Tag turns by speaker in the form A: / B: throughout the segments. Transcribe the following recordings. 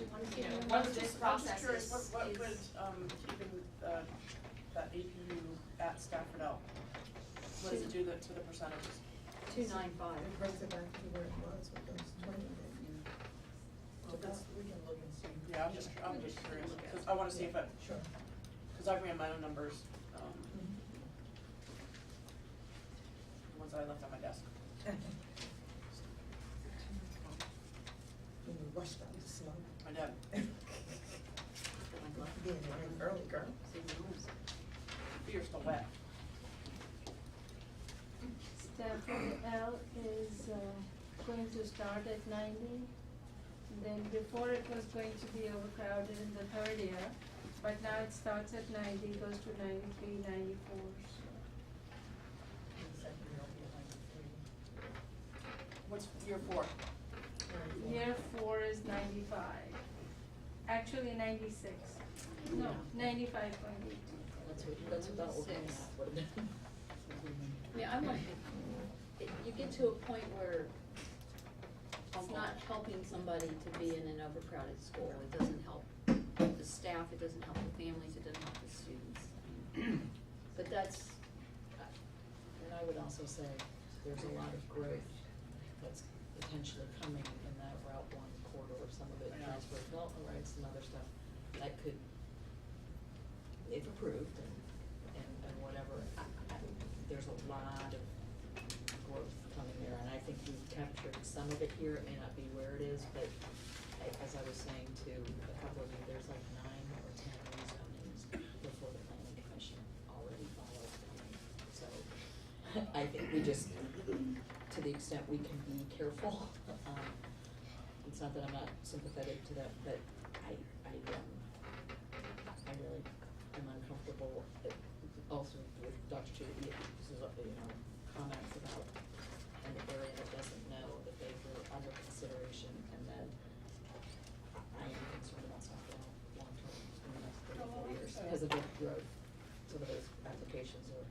A: you know, once
B: understand. I'm
A: this
B: just- I'm just
A: process
B: curious,
A: is-
B: What, what
A: is-
B: would, um, keeping, uh, that APU at Stafford L? What does it do to, to the percentages?
A: Two nine five.
C: It brings it back to where it was with those twenty that you.
B: Well, that's-
C: we can look and see.
B: Yeah, I'm just, I'm
A: We
B: just
A: just
B: curious,
A: look at
B: cause I wanna see if it,
C: Sure.
B: cause I ran my own numbers, um,
A: Mm-hmm.
C: Mm-hmm.
B: the ones that I left on my desk.
C: When you rush down the slope.
B: I did.
C: Being an early girl.
B: You're still wet.
D: Stafford L is uh, going to start at ninety. Then before it was going to be overcrowded in the third year, but now it starts at ninety, goes to 93, 94. so.
B: What's year four?
D: Year four is ninety-five, actually ninety-six, no, ninety-five point eight.
E: That's what, that's what that old man
A: Six.
E: would have been.
A: I mean, I'm like, it- you get to a point where it's not helping somebody to be in an overcrowded school. It doesn't help the staff, it doesn't help the families, it doesn't help the students. I mean, But that's, uh,
E: And I would also say, there's a lot of growth that's potentially coming in that Route One corridor, some of it
B: I know.
E: transfer of development rights and other stuff, that could, if approved and, and, and whatever, I, I, there's a lot of growth coming there, and I think we've captured some of it here, it may not be where it is, but I- as I was saying to a couple of you, there's like nine or ten rezonings before the planning commission already follows planning, so I think we just, to the extent we can be careful, um, it's not that I'm not sympathetic to that, but I, I, um, I really am uncomfortable, uh, also with Dr. Judy, this is, uh, you know, comments about an area that doesn't know that they were under consideration, and then I am concerned about South Carolina long-term in the next three or four years, because of the growth, some of those applications are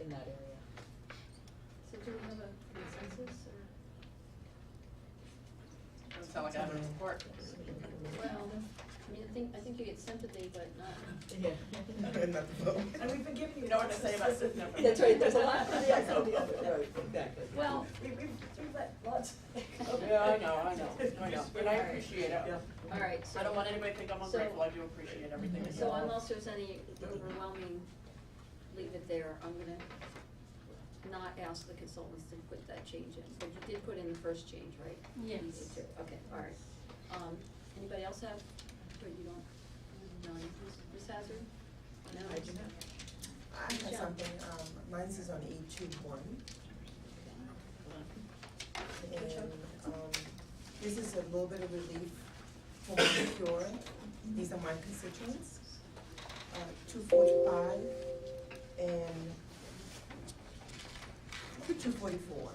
E: in that area.
A: so do we have a consensus or?
B: Doesn't sound like I have any support.
A: Well, I mean, I think, I think you get sympathy, but not,
C: And we've been giving you.
B: You know what I say about
C: lots of
B: sitting up
C: specific-
B: and- That's right,
E: there's a lot for the
B: X and the other.
E: exactly.
A: well,
C: We, we've, we've let lots.
B: Yeah, I know, I know, I know, and I appreciate it.
C: Yeah.
A: all right, so.
B: I don't want anybody to think I'm
A: So- Mm-hmm.
B: ungrateful, I do appreciate everything that you
A: So
B: all.
A: unless there's any overwhelming, leave it there, I'm gonna not ask the consultants to put that change in, but you did put in the first change, right?
D: Yes.
A: You did too. Okay, all right. Um, anybody else have, but you don't, no, Ms. Ms. Hazard? No?
E: I do not.
C: I have
A: Michelle.
C: something, um, mine is on E two one. And, um, this is a little bit of relief for my cure. These are my constituents. Uh, two forty-five and two forty-four.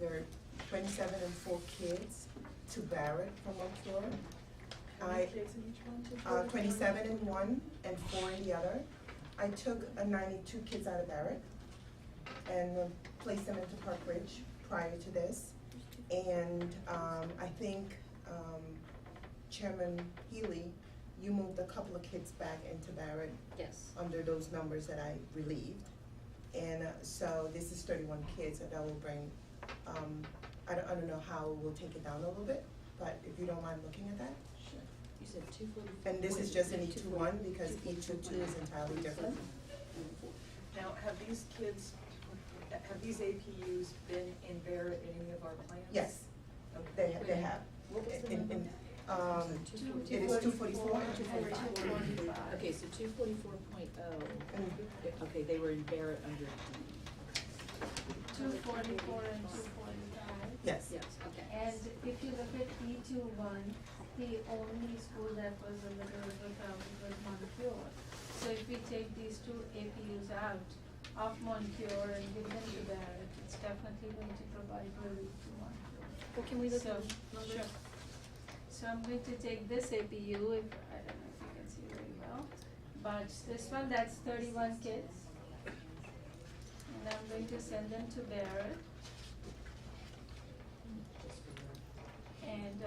C: There are twenty-seven and four kids to Barrett from Mount
B: How many
C: I-
B: kids in each one?
C: uh, twenty-seven in one and four in the other. I took a ninety-two kids out of Barrett and uh, placed them into Park Ridge prior to this. And, um, I think, um, Chairman Healy, you moved a couple of kids back into Barrett
A: Yes,
C: under those numbers that I relieved. And uh, so this is thirty-one kids, so that will bring, um, I don't, I don't know how we'll take it down a little bit, but if you don't mind looking at that.
E: You said two forty-four.
C: And this is just an E two one because E two two is entirely different.
F: Now, have these kids, have these APUs been in Barrett in any of our plans?
C: Yes, they, they have.
E: What was the
C: In-
E: number?
C: in- Um, it is two forty-four.
D: And 225.
E: Okay, so two forty-four point oh, okay, they were in Barrett under D.
D: Two forty-four and two forty-five.
C: Yes,
A: yes, okay.
D: And if you look at E two one, the only school that was a little overcrowded was Montpure. So if we take these two APUs out of Montpure and give them to Barrett, it's definitely going to provide relief to Montpure.
A: Well, can we look
D: So,
A: at the numbers?
D: sure. So I'm going to take this APU, if, I don't know if you can see very well, but this one, that's thirty-one kids. And I'm going to send them to Barrett,
E: Just for your-
D: and